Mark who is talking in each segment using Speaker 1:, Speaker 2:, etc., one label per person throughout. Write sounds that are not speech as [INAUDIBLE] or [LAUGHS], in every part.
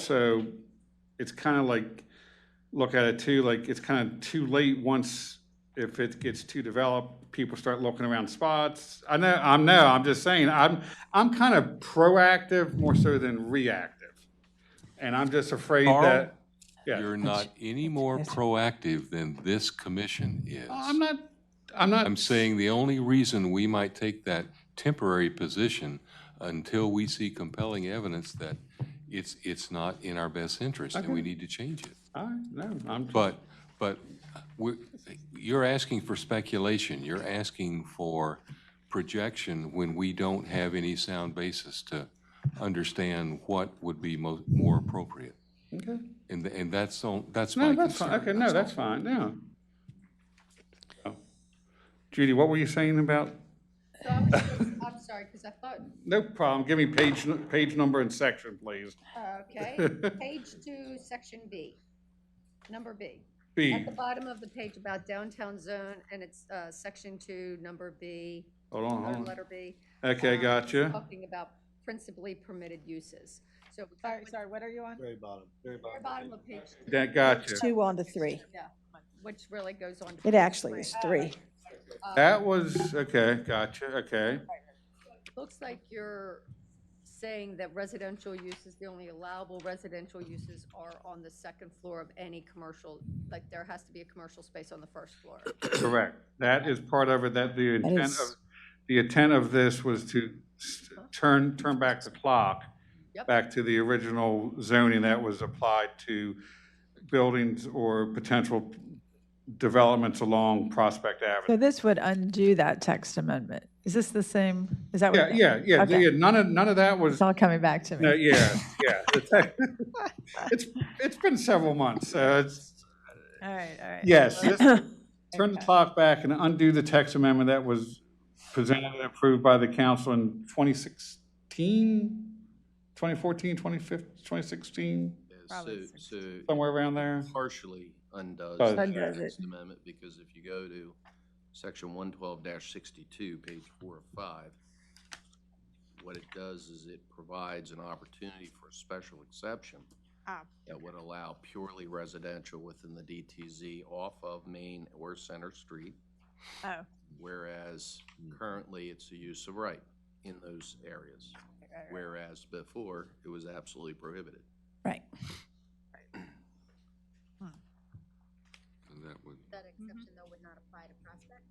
Speaker 1: also, it's kind of like, look at it too, like, it's kind of too late once, if it gets too developed, people start looking around spots. I know, I'm, no, I'm just saying, I'm, I'm kind of proactive more so than reactive. And I'm just afraid
Speaker 2: Carl?
Speaker 1: that, yeah.
Speaker 2: You're not any more proactive than this commission
Speaker 1: I'm
Speaker 2: is.
Speaker 1: not, I'm not.
Speaker 2: I'm saying the only reason we might take that temporary position until we see compelling evidence that it's, it's not in our best interest and we need to change it.
Speaker 1: I, no, I'm,
Speaker 2: But, but we're, you're asking for speculation. You're asking for projection when we don't have any sound basis to understand what would be mo- more appropriate.
Speaker 1: okay.
Speaker 2: And, th- and that's, all- that's
Speaker 1: No,
Speaker 2: my concern.
Speaker 1: that's fine. Okay, no, that's fine, yeah. Oh. Judy, what were you saying about,
Speaker 3: So I was
Speaker 1: [LAUGHS]
Speaker 3: just- I'm sorry, because I thought,
Speaker 1: no problem, give me page, nu- page number and section, please.
Speaker 3: uh,
Speaker 1: [LAUGHS]
Speaker 3: okay, page two, section B, number B.
Speaker 1: B,
Speaker 3: At the bottom of the page about downtown zone, and it's uh, section two, number B,
Speaker 1: hold on,
Speaker 3: or
Speaker 1: hold on.
Speaker 3: letter B.
Speaker 1: Oh. Okay,
Speaker 3: um,
Speaker 1: gotcha.
Speaker 3: Talking about principally permitted uses. So we
Speaker 4: Sorry,
Speaker 3: kinda went
Speaker 4: sorry, what are you on?
Speaker 5: Very bottom, very
Speaker 3: to the
Speaker 5: bottom.
Speaker 3: bottom of page, two,
Speaker 1: That, gotcha.
Speaker 4: Two on to three.
Speaker 3: yeah, which really goes on. to
Speaker 4: It
Speaker 3: page
Speaker 4: actually
Speaker 3: three.
Speaker 4: was three.
Speaker 3: uh.
Speaker 1: That was, okay, gotcha, okay.
Speaker 3: Looks like you're saying that residential uses, the only allowable residential uses are on the second floor of any commercial, like there has to be a commercial space on the first floor.
Speaker 1: Correct. That is part of it, that the
Speaker 4: That
Speaker 1: intent
Speaker 4: is-
Speaker 1: of, the intent of this was to s- turn, turn back the clock
Speaker 3: Yep.
Speaker 1: back to the original zoning that was applied to buildings or potential developments along Prospect
Speaker 6: So
Speaker 1: Avenue.
Speaker 6: this would undo that text amendment. Is this the same? Is that
Speaker 1: Yeah,
Speaker 6: what?
Speaker 1: yeah, yeah,
Speaker 6: Okay.
Speaker 1: yeah, none of, none of that was,
Speaker 6: It's all coming back to
Speaker 1: no,
Speaker 6: me.
Speaker 1: yeah, yeah. [LAUGHS] It's, it's been several months, so it's,
Speaker 6: All right, all right. [LAUGHS]
Speaker 1: Yes, this- turn the clock back and undo the text amendment that was presented and approved by the council in 2016, 2014, 2015, 2016,
Speaker 5: So,
Speaker 6: Probably
Speaker 5: so
Speaker 1: somewhere around there.
Speaker 5: partially undoes
Speaker 1: Does.
Speaker 5: the
Speaker 4: Undoes it.
Speaker 5: Sixth Amendment, because if you go to section one twelve sixty-two, page four of five, what it does is it provides an opportunity for a special exception
Speaker 4: Ah.
Speaker 5: that would allow purely residential within the DTZ off of Main or Center Street,
Speaker 6: Oh,
Speaker 5: whereas
Speaker 1: Hmm.
Speaker 5: currently it's a use of right in those areas, whereas before it was absolutely prohibited.
Speaker 4: Right.
Speaker 2: And that would-
Speaker 3: That exception though would not apply to Prospect?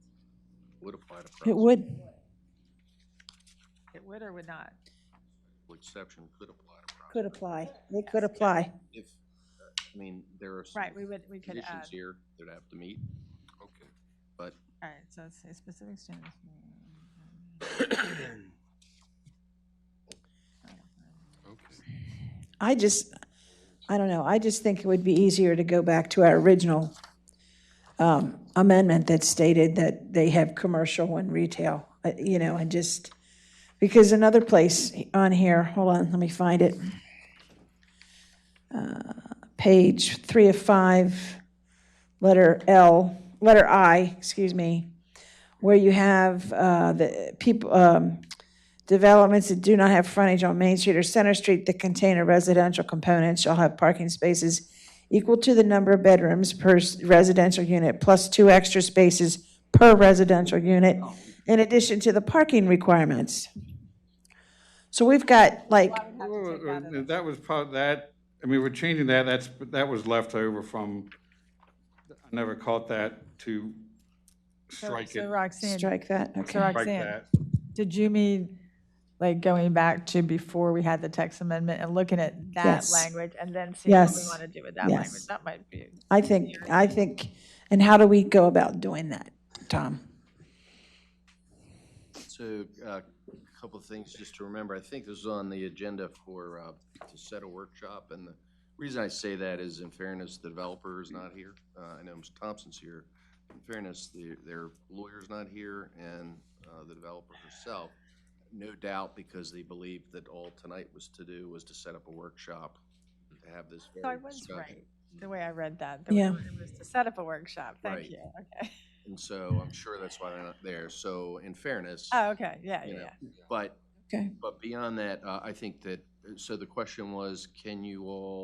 Speaker 5: Would apply to.
Speaker 4: It
Speaker 5: Prospect.
Speaker 4: would.
Speaker 6: It would or would not?
Speaker 5: exception could apply to property.
Speaker 4: Could apply. It could apply.
Speaker 5: If, uh, I mean, there are some
Speaker 6: Right, we would, we could uh, add,
Speaker 5: conditions here that have to meet,
Speaker 2: Okay.
Speaker 5: but
Speaker 6: all right, so it's a specific standards.
Speaker 2: Okay.
Speaker 4: I just, I don't know, I just think it would be easier to go back to our original um, amendment that stated that they have commercial and retail, uh, you know, and just, because another place on here, hold on, let me find it. Uh, Page three of five, letter L, letter I, excuse me, where you have uh, the people, um, Developments that do not have frontage on Main Street or Center Street that contain a residential component shall have parking spaces equal to the number of bedrooms per s- residential unit plus two extra spaces per residential unit in addition to the parking requirements. So we've got like,
Speaker 1: That was part, that, I mean, we're changing that, that's, that was left over from, I never caught that to strike
Speaker 6: So
Speaker 1: it,
Speaker 6: Roxanne, so
Speaker 4: strike that, okay.
Speaker 1: strike
Speaker 6: Roxanne,
Speaker 1: that.
Speaker 6: did you mean, like, going back to before we had the text amendment and looking at that
Speaker 4: Yes.
Speaker 6: language and then seeing what we
Speaker 4: Yes.
Speaker 6: want to do with that
Speaker 4: Yes.
Speaker 6: language? That might be,
Speaker 4: I think, I think, and how do we go about doing that, Tom?
Speaker 5: so uh, a couple of things just to remember. I think this is on the agenda for, uh, to set a workshop. And the reason I say that is in fairness, the developer is not here. Uh, I know Mr. Thompson's here. In fairness, the- their lawyer's not here and uh, the developer herself. No doubt because they believe that all tonight was to do was to set up a workshop to have this
Speaker 6: so I
Speaker 5: very
Speaker 6: was
Speaker 5: discussion.
Speaker 6: right, the way I read that. the way
Speaker 4: Yeah.
Speaker 6: It was to set up a workshop,
Speaker 5: Right.
Speaker 6: thank you, okay.
Speaker 5: And so I'm sure that's why they're not there. So in fairness,
Speaker 6: Oh, okay, yeah,
Speaker 5: you
Speaker 6: yeah,
Speaker 5: know,
Speaker 6: yeah.
Speaker 5: but,
Speaker 4: Okay.
Speaker 5: but beyond that, uh, I think that so the question was, can you all